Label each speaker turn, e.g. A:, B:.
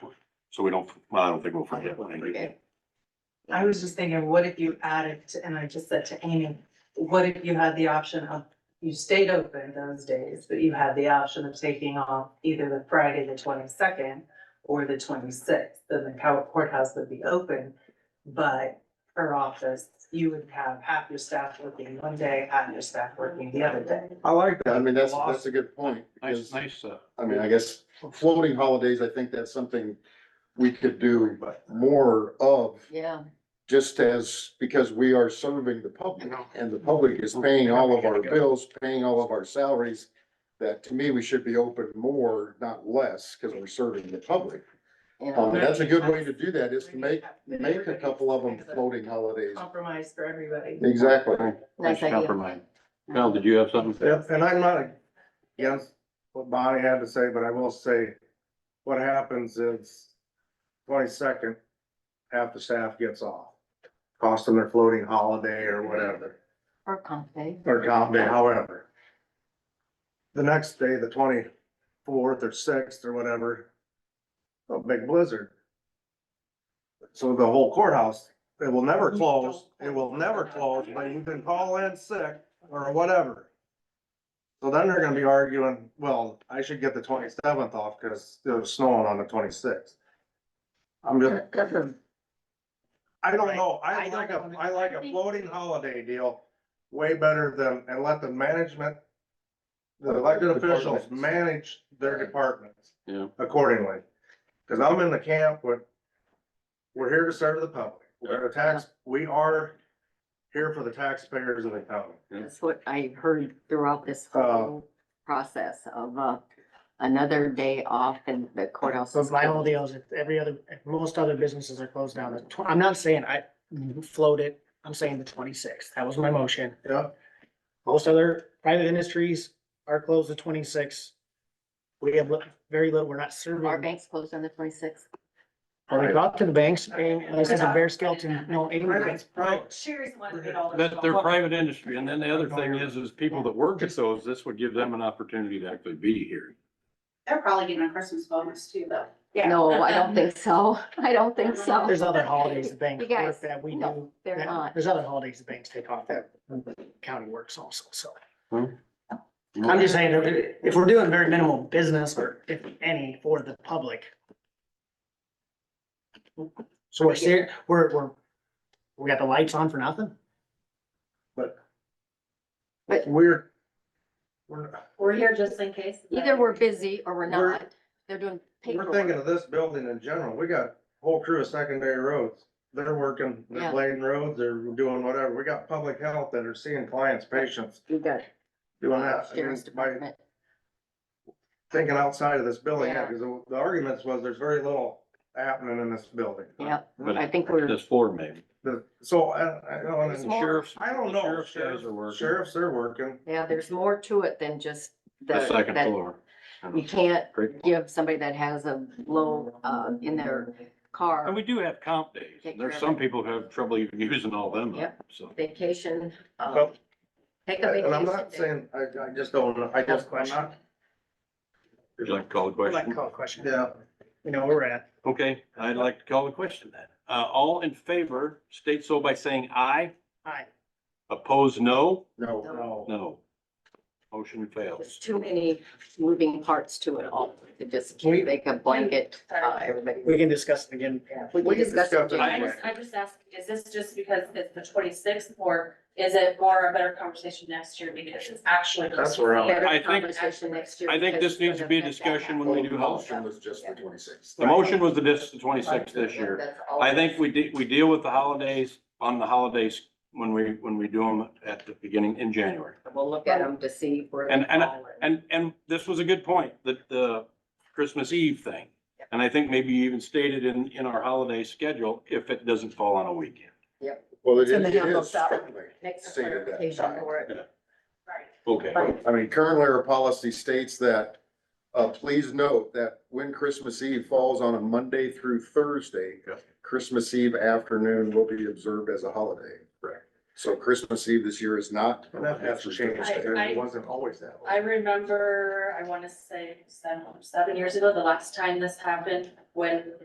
A: So we don't, well, I don't think we'll forget.
B: We'll forget.
C: I was just thinking, what if you added, to- and I just said to Amy, what if you had the option of, you stayed open those days, but you had the option of taking off either the Friday, the twenty-second or the twenty-sixth, then the cow- courthouse would be open, but her office, you would have half your staff working one day, half your staff working the other day.
B: I like that. I mean, that's, that's a good point.
A: Nice,
B: because,
A: nice, uh,
B: I mean, I guess floating holidays, I think that's something we could do more of.
D: Yeah,
B: just as, because we are serving the public and the public is paying all of our bills, paying all of our salaries. That to me, we should be open more, not less, because we're serving the public.
C: Oh,
D: yeah,
B: Um, that's a good way to do that is to make, make a couple of them floating holidays.
C: Compromise for everybody.
B: Exactly.
D: nice
A: nice
D: idea.
A: compromise. Val, did you have something?
E: Yep, and I'm not against what Bonnie had to say, but I will say, what happens is twenty-second, half the staff gets off. Cost them their floating holiday or whatever,
D: Or comp day.
E: or comp day, however. The next day, the twenty-fourth or sixth or whatever, a big blizzard. So the whole courthouse, it will never close, it will never close, but you can call in sick or whatever. So then they're gonna be arguing, well, I should get the twenty-seventh off because it was snowing on the twenty-sixth. I'm just, I don't know,
C: I
E: I like
C: don't
E: a,
C: know.
E: I like a floating holiday deal way better than, and let the management, the elected officials manage their departments
A: Yeah.
E: accordingly. Cause I'm in the camp with, we're here to serve the public, we're a tax, we are here for the taxpayers of the county.
D: That's what I heard throughout this whole process of, uh, another day off and the courthouse.
F: So
D: is
F: my whole
D: closed.
F: deal is that every other, most other businesses are closed down. The tw- I'm not saying I float it. I'm saying the twenty-sixth. That was my motion.
E: Yeah.
F: Most other private industries are closed the twenty-sixth. We have li- very little, we're not serving.
D: Our bank's closed on the twenty-sixth.
F: Well, we got to the banks and I said a bare skeleton, no, eight minutes.
C: Sherry's the one who did all the.
A: That they're private industry, and then the other thing is, is people that work at those, this would give them an opportunity to actually be here.
G: They're probably getting a Christmas bonus too, though.
D: No, I don't think so. I don't think so.
F: There's other holidays the banks
D: You guys,
F: work that we
D: no,
F: do.
D: they're
F: that-
D: not.
F: There's other holidays the banks take off that county works also, so.
A: Hmm.
F: I'm just saying, if- if we're doing very minimal business or if any for the public. So we're ser- we're, we're, we got the lights on for nothing?
E: We're, we're,
G: We're here just in case.
D: Either we're busy or we're
E: We're-
D: not. They're doing
E: we're thinking
D: paperwork.
E: of this building in general, we got whole crew of secondary roads. They're working,
D: Yeah.
E: they're laying roads, they're doing whatever, we got public health that are seeing clients, patients,
D: You got.
E: doing that. I mean,
D: Sheriff's
E: By
D: Department.
E: thinking outside of this building, yeah,
D: Yeah.
E: because the the arguments was there's very little happening in this building.
D: Yep,
A: But
D: I think we're,
A: This floor maybe.
E: The- so, I, I don't,
A: The
E: and
A: Sheriffs.
E: I don't know,
A: Sheriff's guys are
E: sheriffs,
A: working.
E: sheriffs are working,
D: yeah, there's more to it than just
A: The
D: the,
A: second
D: that
A: floor.
D: you can't
A: Great.
D: give somebody that has a low, uh, in their car
A: And we do have comp days.
D: Take
A: There's
D: care of
A: some
D: it.
A: people who have trouble even using all them up,
D: Yep.
A: so.
D: vacation, uh,
E: Well,
D: take a vacation.
E: and I'm not
D: day.
E: saying, I, I just don't, know. I just, I'm not,
A: Would you like to call the
F: I'd Like to
A: question?
F: call a question.
E: yeah.
F: You know, where we're at.
A: Okay, I'd like to call the question then. Uh, all in favor, state so by saying aye.
F: Hi.
A: Oppose, no.
B: No,
E: No.
A: No. Motion
D: There's
A: fails.
D: too many moving parts to it all. It just can't make a blanket, uh, everybody.
F: We can discuss it again.
D: We
E: we
D: can
E: can
D: discuss it.
E: discuss it.
G: I
D: January.
G: just, I just asked, is this just because it's the twenty-sixth or is it more a better conversation next year because it's actually.
E: That's where I'm-
D: Better
A: I think-
D: conversation next year
A: I think
D: because
A: this needs to be a
D: it's gonna affect
A: discussion
D: that.
A: when we do health.
B: motion was just the twenty-sixth.
A: The motion was the dis, the twenty-sixth this
D: Yeah,
A: year.
D: that's all.
A: I think we de- we deal with the holidays on the holidays when we, when we do them at the beginning in January.
D: We'll look at them to see where. they
A: And- and-
D: fall in.
A: And, and this was a good point, the, the Christmas Eve thing. And I think maybe you even stated in, in our holiday schedule, if it doesn't fall on a weekend.
B: Well, it
D: It's
B: is,
D: in the
B: it
D: handbook,
B: is
D: so-
B: strictly
D: Next
B: stated that
D: clarification
B: time.
D: for it.
G: Right.
A: Okay.
B: I mean, currently our policy states that, uh, please note that when Christmas Eve falls on a Monday through Thursday,
A: Okay.
B: Christmas Eve afternoon will be observed as a holiday.
A: Correct.
B: So Christmas Eve this year is not.
E: And that has to change,
G: I- I-
E: it wasn't always that way.
G: I remember, I want to say seven, seven years ago, the last time this happened, when